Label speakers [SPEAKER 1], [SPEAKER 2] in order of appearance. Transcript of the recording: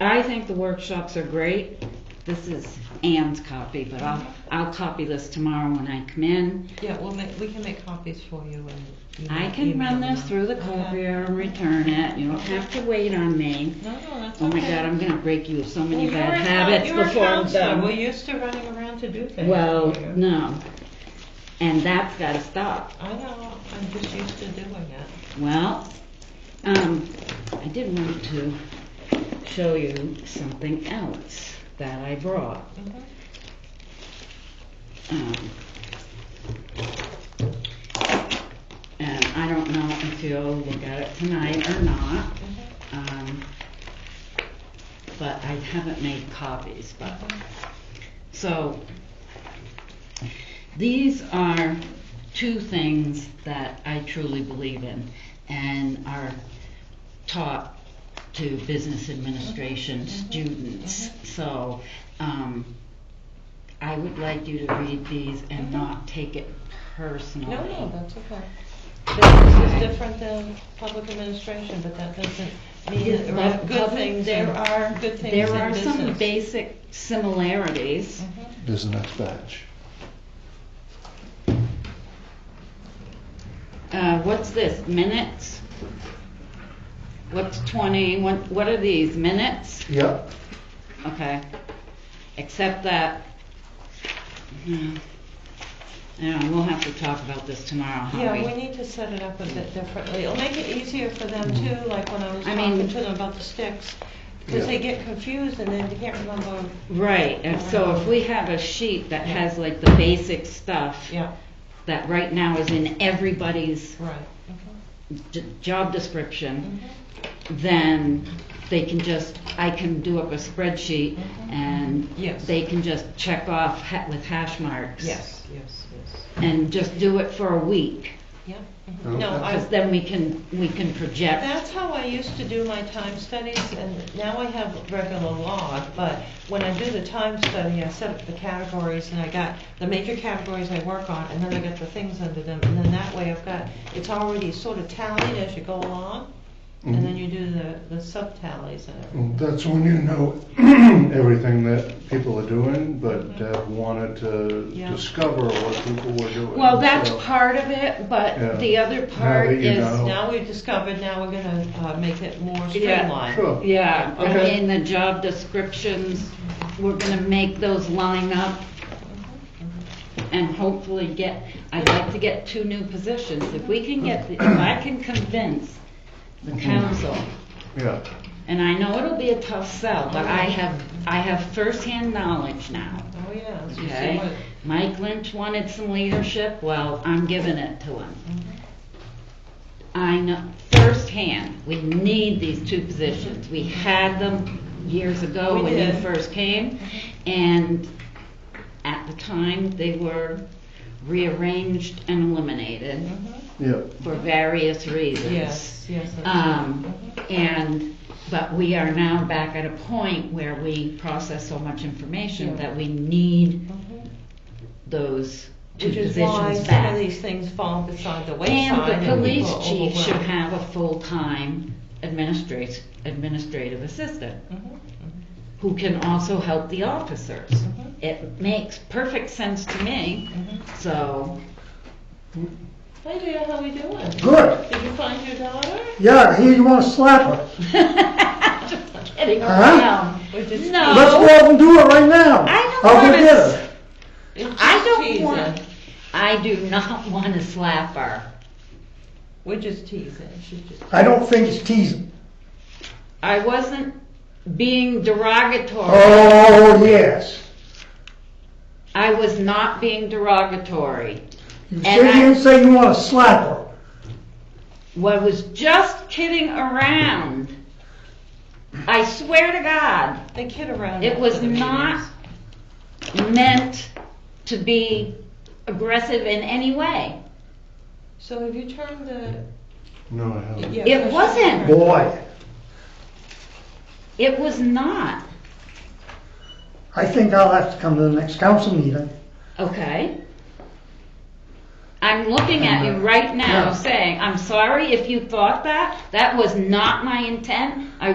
[SPEAKER 1] I think the workshops are great. This is Ann's copy, but I'll, I'll copy this tomorrow when I come in.
[SPEAKER 2] Yeah, we'll make, we can make copies for you and.
[SPEAKER 1] I can run this through the
[SPEAKER 2] Uh-huh.
[SPEAKER 1] copier and return it. You don't have to wait on me.
[SPEAKER 2] No, no, that's
[SPEAKER 1] Oh
[SPEAKER 2] okay.
[SPEAKER 1] my God, I'm gonna break you of so
[SPEAKER 2] Well,
[SPEAKER 1] many
[SPEAKER 2] you're
[SPEAKER 1] bad
[SPEAKER 2] a-
[SPEAKER 1] habits
[SPEAKER 2] you're a
[SPEAKER 1] before I'm
[SPEAKER 2] counselor.
[SPEAKER 1] done.
[SPEAKER 2] We're used to running around to do things.
[SPEAKER 1] Well,
[SPEAKER 2] for you.
[SPEAKER 1] no. And that's gotta stop.
[SPEAKER 2] I know, I'm just used to doing it.
[SPEAKER 1] Well, um, I did want to show you something else that I brought.
[SPEAKER 2] Mhm.
[SPEAKER 1] Um, And I don't know if you'll look at it tonight or not.
[SPEAKER 2] mm-hmm.
[SPEAKER 1] Um, But I haven't made copies, but, so, these are two things that I truly believe in and are taught to business
[SPEAKER 2] Mm-hmm.
[SPEAKER 1] administration students. So, um, I would like you to read these and not take it personally.
[SPEAKER 2] Mm-hmm. No, no, that's okay. This is
[SPEAKER 1] Okay.
[SPEAKER 2] different than public administration, but that doesn't mean
[SPEAKER 1] Yeah,
[SPEAKER 2] that there are
[SPEAKER 1] but
[SPEAKER 2] good
[SPEAKER 1] public-
[SPEAKER 2] things, there are good things in business.
[SPEAKER 1] There are some basic similarities.
[SPEAKER 2] Mhm.
[SPEAKER 3] There's the next batch.
[SPEAKER 1] Uh, what's this, minutes? What's twenty, what, what are these, minutes?
[SPEAKER 3] Yep.
[SPEAKER 1] Okay, except that, hmm, I don't know, we'll have to talk about this tomorrow, huh?
[SPEAKER 2] Yeah, we need to set it up a bit differently. It'll make it easier for them too, like when I was
[SPEAKER 1] Mm-hmm. I mean-
[SPEAKER 2] talking to them about the sticks. Because
[SPEAKER 3] Yeah.
[SPEAKER 2] they get confused and then they can't remember,
[SPEAKER 1] Right, and so if we have a sheet that has like the basic stuff
[SPEAKER 2] yeah,
[SPEAKER 1] that right now is in everybody's
[SPEAKER 2] right.
[SPEAKER 1] Mm-hmm. j- job description,
[SPEAKER 2] Mhm.
[SPEAKER 1] then they can just, I can do up a spreadsheet
[SPEAKER 2] Mhm.
[SPEAKER 1] and
[SPEAKER 2] Yes.
[SPEAKER 1] they can just check off ha- with hash marks.
[SPEAKER 2] Yes, yes, yes.
[SPEAKER 1] And just do Oh, it for a week,
[SPEAKER 2] Yeah. mhm.
[SPEAKER 3] Okay.
[SPEAKER 2] No, I,
[SPEAKER 1] because then we can, we can project.
[SPEAKER 2] That's how I used to do my time studies, and now I have regular log, but when I do the time study, I set up the categories, and I got the major categories I work on, and then I got the things under them, and then that way I've got, it's already sort of tallied as you go along, and then you do the, the sub-tallies and everything.
[SPEAKER 3] And That's when you know everything that people are doing, but
[SPEAKER 1] Mm-hmm.
[SPEAKER 3] uh, wanted to
[SPEAKER 2] Yeah.
[SPEAKER 3] discover what people were doing.
[SPEAKER 1] Well, that's
[SPEAKER 3] so-
[SPEAKER 1] part of it,
[SPEAKER 3] Yeah.
[SPEAKER 1] but the other part
[SPEAKER 3] that you
[SPEAKER 1] is,
[SPEAKER 3] know.
[SPEAKER 2] Now we've discovered, now we're gonna, uh, make it more
[SPEAKER 1] Yeah.
[SPEAKER 2] streamlined.
[SPEAKER 3] Sure.
[SPEAKER 1] yeah,
[SPEAKER 3] Okay.
[SPEAKER 1] in the job descriptions, we're gonna make those line up and hopefully get, I'd like to get two new positions. If we can get, the- if I can convince
[SPEAKER 3] Mm-hmm.
[SPEAKER 1] the council,
[SPEAKER 3] Yeah,
[SPEAKER 1] and I know it'll be a tough sell, but I have, I have firsthand knowledge now.
[SPEAKER 2] Oh, yeah. so you see
[SPEAKER 1] Okay,
[SPEAKER 2] what-
[SPEAKER 1] Mike Lynch wanted some leadership, well, I'm giving it to him.
[SPEAKER 2] Mm-hmm.
[SPEAKER 1] I know firsthand, we need these two positions. We had them years ago
[SPEAKER 2] We
[SPEAKER 1] when you
[SPEAKER 2] did.
[SPEAKER 1] first came, and at the time, they were rearranged and eliminated
[SPEAKER 2] Mm-hmm.
[SPEAKER 3] yeah.
[SPEAKER 1] for various reasons.
[SPEAKER 2] Yes, yes. that's
[SPEAKER 1] Um, and, but we are now back at a point where we process so much information that we need
[SPEAKER 2] right. Mhm.
[SPEAKER 1] those two
[SPEAKER 2] Which is why
[SPEAKER 1] positions
[SPEAKER 2] some of
[SPEAKER 1] back.
[SPEAKER 2] these things fall beside the wayside
[SPEAKER 1] And the
[SPEAKER 2] and
[SPEAKER 1] police
[SPEAKER 2] people are
[SPEAKER 1] chief should
[SPEAKER 2] overwhelmed.
[SPEAKER 1] have a full-time administrative, administrative assistant
[SPEAKER 2] Mhm,
[SPEAKER 1] who can also help the officers.
[SPEAKER 2] Mhm.
[SPEAKER 1] It makes perfect sense to me,
[SPEAKER 2] mhm.
[SPEAKER 1] so,
[SPEAKER 2] Hey dear, how we doing?
[SPEAKER 4] Good.
[SPEAKER 2] Did you find your daughter?
[SPEAKER 4] Yeah, here you want to slap her.
[SPEAKER 1] getting
[SPEAKER 4] Huh?
[SPEAKER 1] around.
[SPEAKER 2] Or just
[SPEAKER 1] No.
[SPEAKER 4] Let's go up and do it right now.
[SPEAKER 1] Oh. I don't
[SPEAKER 4] I'll go
[SPEAKER 1] wanna
[SPEAKER 4] get
[SPEAKER 1] s-
[SPEAKER 4] her.
[SPEAKER 2] teasing? It's
[SPEAKER 1] I
[SPEAKER 2] just
[SPEAKER 1] don't
[SPEAKER 2] teasing.
[SPEAKER 1] want, I do not want to slap her.
[SPEAKER 2] We're just teasing, she's just.
[SPEAKER 4] I don't think it's teasing.
[SPEAKER 1] I wasn't being derogatory.
[SPEAKER 4] Oh, yes.
[SPEAKER 1] I was not being derogatory.
[SPEAKER 4] You
[SPEAKER 1] And
[SPEAKER 4] sit
[SPEAKER 1] I-
[SPEAKER 4] here and say you want to slap her.
[SPEAKER 1] Well, I was just kidding around. I swear to God,
[SPEAKER 2] They kid around.
[SPEAKER 1] it
[SPEAKER 2] after
[SPEAKER 1] was
[SPEAKER 2] the meetings.
[SPEAKER 1] not meant to be aggressive in any way.
[SPEAKER 2] So have you turned the?
[SPEAKER 3] No, I haven't.
[SPEAKER 2] yeah,
[SPEAKER 1] It
[SPEAKER 2] so she-
[SPEAKER 1] wasn't.
[SPEAKER 4] Boy,
[SPEAKER 1] It was not.
[SPEAKER 4] I think I'll have to come to the next council meeting.
[SPEAKER 1] Okay? I'm looking at you right now
[SPEAKER 4] Yeah.
[SPEAKER 1] saying, I'm sorry if you thought that. That was not my intent. I